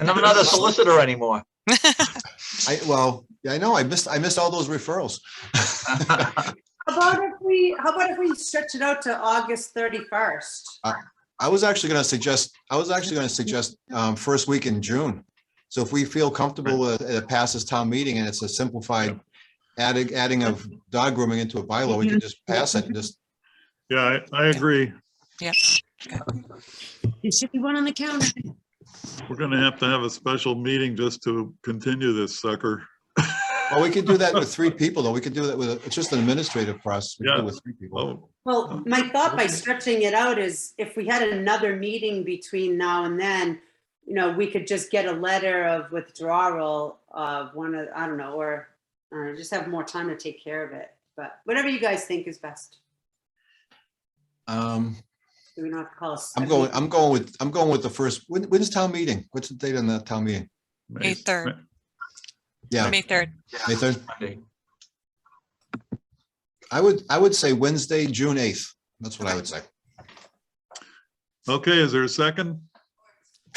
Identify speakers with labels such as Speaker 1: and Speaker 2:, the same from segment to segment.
Speaker 1: And I'm not a solicitor anymore.
Speaker 2: I, well, I know, I missed, I missed all those referrals.
Speaker 3: How about if we, how about if we stretch it out to August 31st?
Speaker 2: I was actually gonna suggest, I was actually gonna suggest, um, first week in June. So if we feel comfortable with, it passes town meeting and it's a simplified adding, adding of dog grooming into a bylaw, we can just pass it and just,
Speaker 4: Yeah, I, I agree.
Speaker 5: There should be one on the counter.
Speaker 4: We're gonna have to have a special meeting just to continue this sucker.
Speaker 2: well, we could do that with three people though. We could do that with, it's just an administrative process. We could do it With three people.
Speaker 4: Oh,
Speaker 3: Well, my thought by stretching it out is if we had another meeting between now and then, you know, we could just get a letter of withdrawal of one of, I don't know, or uh, just have more time to take care of it. But whatever you guys think is best.
Speaker 2: Um,
Speaker 3: Do we not have to call us?
Speaker 2: I'm going, I'm going with, I'm going with the first, when, when is town meeting? What's the date on that town meeting?
Speaker 4: May-
Speaker 6: May third.
Speaker 2: Yeah,
Speaker 6: May third.
Speaker 2: May third.
Speaker 1: Monday.
Speaker 2: I would, I would say Wednesday, June eighth. That's what I would say.
Speaker 4: Okay, is there a second?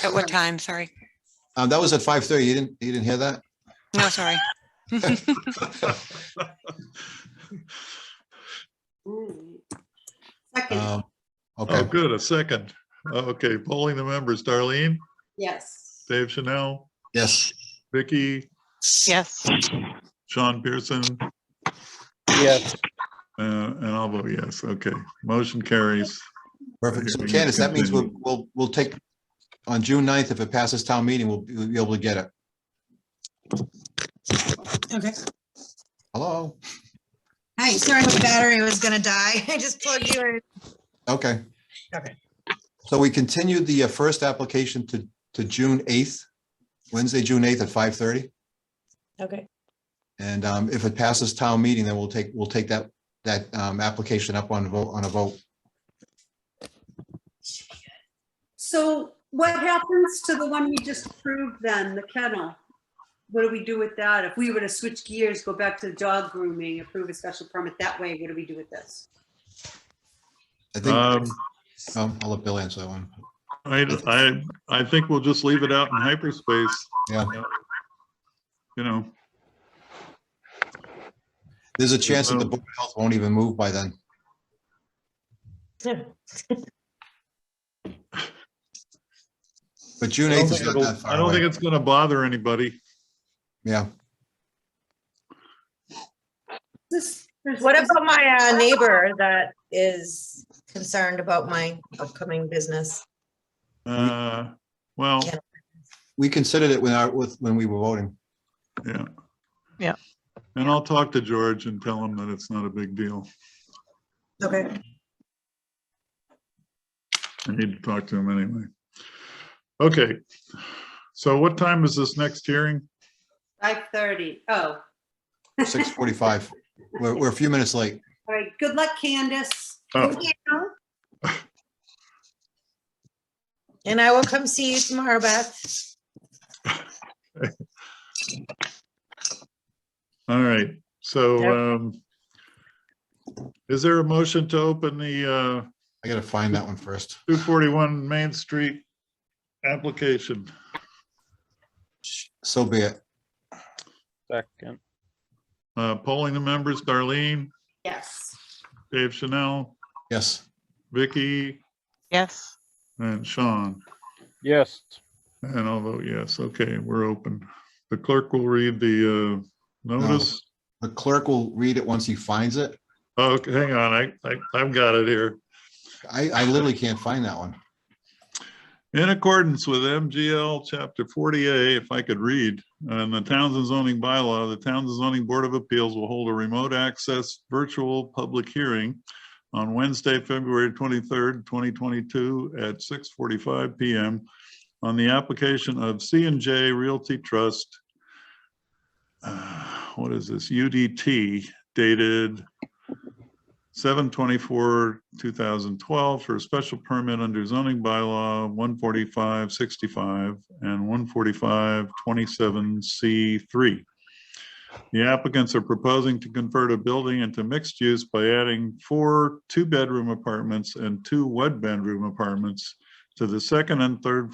Speaker 6: At what time? Sorry.
Speaker 2: Um, that was at five thirty. You didn't, you didn't hear that?
Speaker 6: No, sorry.
Speaker 3: Second,
Speaker 2: Um,
Speaker 4: Oh,
Speaker 2: okay,
Speaker 4: good, a second. Okay, polling the members, Darlene,
Speaker 3: yes.
Speaker 4: Dave Chanel,
Speaker 2: yes.
Speaker 4: Vicky,
Speaker 6: Yes.
Speaker 4: Sean Pearson, uh,
Speaker 7: Yes,
Speaker 4: and I'll vote yes. Okay, motion carries.
Speaker 2: Perfect. So
Speaker 4: Okay, we
Speaker 2: Candace, that means we'll,
Speaker 4: continue.
Speaker 2: we'll, we'll take, on June 9th, if it passes town meeting, we'll be we'll be able to get it.
Speaker 5: Okay.
Speaker 2: Hello?
Speaker 5: Hi, sorry, the battery was gonna die. I just plugged you in.
Speaker 2: Okay.
Speaker 5: Okay.
Speaker 2: So we continued the uh, first application to, to June 8th, Wednesday, June 8th at 5:30.
Speaker 5: Okay.
Speaker 2: And um, if it passes town meeting, then we'll take, we'll take that, that um, application up on vote, on a vote.
Speaker 3: So what happens to the one we just approved then, the kennel? What do we do with that? If we were to switch gears, go back to the dog grooming, approve a special permit that way, what do we do with this?
Speaker 2: I think,
Speaker 4: Um,
Speaker 2: um, I'll let Bill answer that one.
Speaker 4: I, I, I think we'll just leave it out in hyperspace.
Speaker 2: Yeah.
Speaker 4: You know,
Speaker 2: There's a chance
Speaker 4: um,
Speaker 2: that the Board of Health won't even move by then. But June
Speaker 4: I don't
Speaker 2: 8th
Speaker 4: think
Speaker 2: is not that
Speaker 4: it'll-
Speaker 2: far
Speaker 4: I don't think
Speaker 2: away.
Speaker 4: it's gonna bother anybody.
Speaker 2: Yeah,
Speaker 3: This- there's-
Speaker 8: What about my uh, neighbor that is concerned about my upcoming business?
Speaker 4: Uh, well,
Speaker 8: Yeah.
Speaker 2: we considered it when our, with, when we were voting.
Speaker 4: yeah.
Speaker 6: Yeah.
Speaker 4: And I'll talk to George and tell him that it's not a big deal.
Speaker 8: Okay.
Speaker 4: I need to talk to him anyway. Okay, so what time is this next hearing?
Speaker 3: 5:30. Oh,
Speaker 2: 6:45. We're, we're a few minutes late.
Speaker 3: all right. Good luck, Candace.
Speaker 4: Oh,
Speaker 8: And I will come see you tomorrow, Beth.
Speaker 4: all right, so, um, is there a motion to open the, uh,
Speaker 2: I gotta find that one first.
Speaker 4: two forty-one Main Street application?
Speaker 2: So be it.
Speaker 7: second,
Speaker 4: Uh, polling the members, Darlene,
Speaker 3: Yes.
Speaker 4: Dave Chanel,
Speaker 2: Yes.
Speaker 4: Vicky,
Speaker 6: Yes.
Speaker 4: and Sean.
Speaker 7: yes.
Speaker 4: And I'll vote yes. Okay, we're open. The clerk will read the uh, notice.
Speaker 2: The clerk will read it once he finds it.
Speaker 4: Oh, Okay, hang on, I, I, I've got it here.
Speaker 2: I, I literally can't find that one.
Speaker 4: In accordance with MGL Chapter 40A, if I could read, and the Townsend zoning bylaw, the Townsend zoning board of appeals will hold a remote access virtual public hearing on Wednesday, February 23rd, 2022 at 6:45 PM on the application of C and J Realty Trust. uh, What is this? UDT dated 7/24/2012 for a special permit under zoning bylaw 14565 and 14527C3. The applicants are proposing to convert a building into mixed use by adding four two-bedroom apartments and two one-bedroom apartments to the second and third